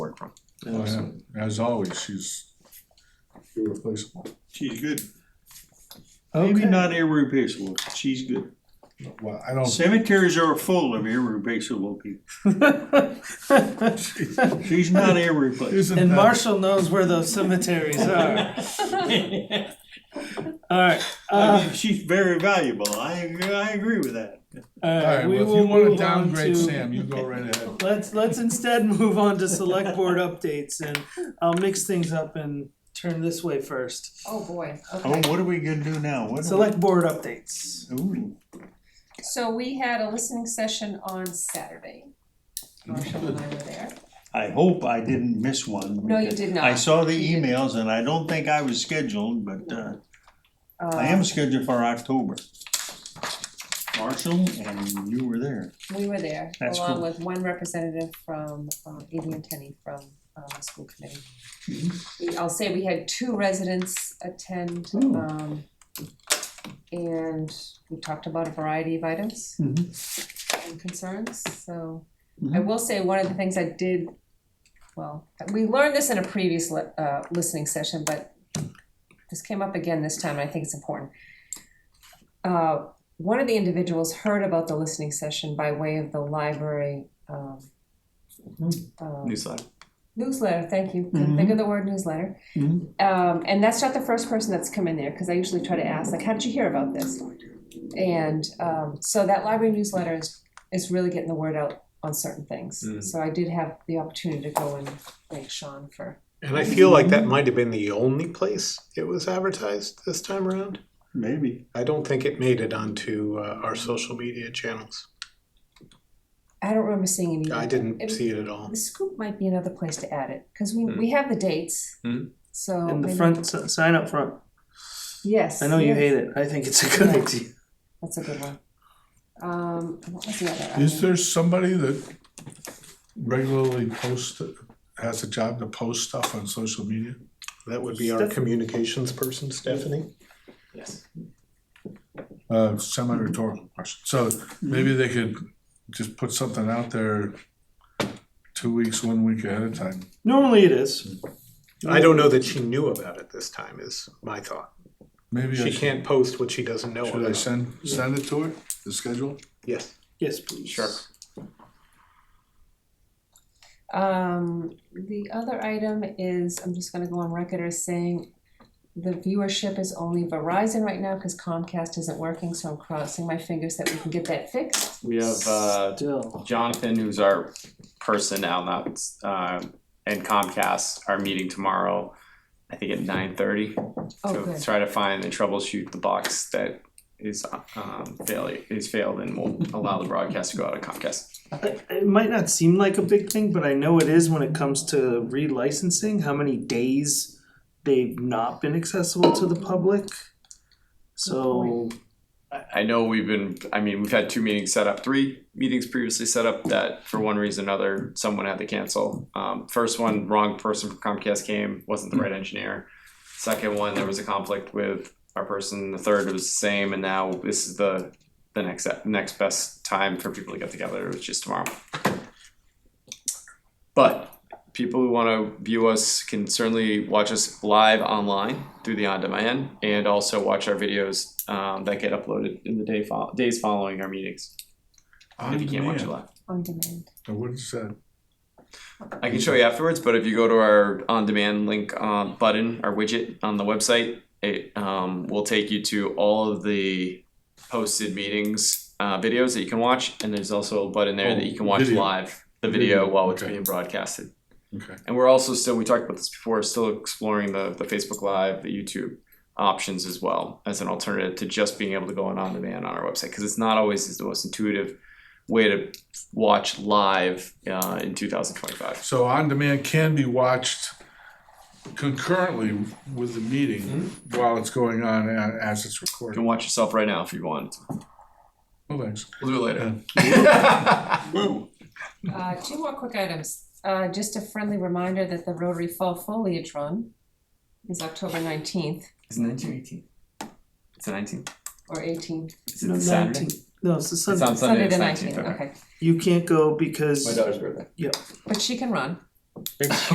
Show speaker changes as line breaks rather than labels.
Oh, yeah. As always, she's irreplaceable.
She's good. Maybe
Okay,
not irreplaceable. but She's good.
well,
Oh.
I don't,
Cemeteries are full of irreplaceable people. She's not irreplaceable.
isn't
And
that,
Marshall knows where those cemeteries are. All right,
I
uh,
mean, she's very valuable. I I agree with that.
all right,
alright,
we
well, if
will
you wanna
move on
downgrade
to.
Sam, you go right ahead.
Let's, let's instead move on to select board updates and I'll mix things up and turn this way first.
Oh, boy,
Oh,
okay.
what are we gonna do now? What? are
Select board updates.
we- Ooh.
So we had a listening session on Saturday. Marshall and I were there.
I hope I didn't miss one.
No, you
because
did
I
not.
saw the
You did.
emails and I don't think I was scheduled, but uh, I
Um,
am scheduled for October. Marshall, and you were there.
We were there,
That's
along
cool.
with one representative from, um, Adrian Tenney from, um, the school committee. We- I'll say we had two residents attend,
Mm-hmm. Ooh.
um, and we talked about a variety of items
Mm-hmm.
and concerns, so. I
Mhm.
will say, one of the things I did, well, we learned this in a previous li- uh, listening session, but this came up again this time, and I think it's important. Uh, one of the individuals heard about the listening session by way of the library, um, um,
newsletter.
newsletter, thank you, couldn't think of the word newsletter.
Mhm.
Um, and that's not the first person that's come in there, cause I usually try to ask, like, how did you hear about this? And, um, so that library newsletter is, is really getting the word out on certain things.
Mm.
So I did have the opportunity to go and thank Sean for,
And I feel like that might have been the only place it was advertised this time around.
Maybe.
I don't think it made it onto uh, our social media channels.
I don't remember seeing him either.
I
It-
didn't see it at all.
The scoop might be another place to add it, cause we,
Mm.
we have the dates,
Mm.
so.
In the
maybe-
front, s- sign up front.
Yes.
I know you
yes,
hate it. I think it's a good idea.
That's a good one. Um, what was the other?
Is there somebody that regularly posts, has a job to post stuff on social media?
That would be our
Steph-
communications person, Stephanie.
Uh, semi-rhetorical question, so maybe they could just put something out there two weeks, one week ahead of time.
Normally it is.
I don't know that she knew about it this time. Is my thought.
Maybe I
She
should,
can't post what she doesn't know
should I
about.
send, send it to her, the schedule?
yes.
Yes, please.
Um, the other item is, I'm just gonna go on record as saying the viewership is only Verizon right now because Comcast isn't working, so I'm crossing my fingers that we can get that fixed.
We have uh,
Still.
Jonathan, who's our person now, not uh, and Comcast, our meeting tomorrow. I think at nine thirty.
Oh,
to
good.
try to find and troubleshoot the box that is um, failure is failed and will allow the broadcast to go out of Comcast.
It it might not seem like a big thing, but I know it is when it comes to relicensing, how many days they've not been accessible to the public. So,
I- I know we've been. I mean, we've had two meetings set up, three meetings previously set up that for one reason or another someone had to cancel. Um, first one, wrong person from Comcast came, wasn't the right engineer. Second one, there was a conflict with our person. The third was the same, and now this is the the next next best time for people to get together, which is tomorrow. But people who want to view us can certainly watch us live online through the on-demand, and also watch our videos um, that get uploaded in the day fol- days following our meetings. if you can't watch it live,
On demand.
Now, What is that?
I can show you afterwards. But if you go to our on-demand link um, button, our widget on the website, it um, will take you to all of the posted meetings uh, videos that you can watch, and there's also a button there that you can watch
Video.
live the video
Video,
while it's
okay.
being broadcasted.
Okay.
And we're also still, we talked about this before, still exploring the, the Facebook Live, the YouTube options as well as an alternative to just being able to go on on demand on our website because it's not always the most intuitive way to watch live uh, in 2025.
So on demand can be watched concurrently with the meeting while it's going on and as it's
You
recorded.
can watch yourself right now if you want.
Well, thanks.
We'll do it later.
Whoa.
Uh, two more quick items. Uh, just a friendly reminder that the Rotary Fall Foliage Run is October nineteenth
It's 1918. It's the 19th.
or eighteenth.
Is it
no,
Saturday?
19 no, it's a
It's
Sunday.
on Sunday.
Sunday
it's
the
19th.
nineteenth, okay.
You can't go because
daughter's birthday.
But she can run.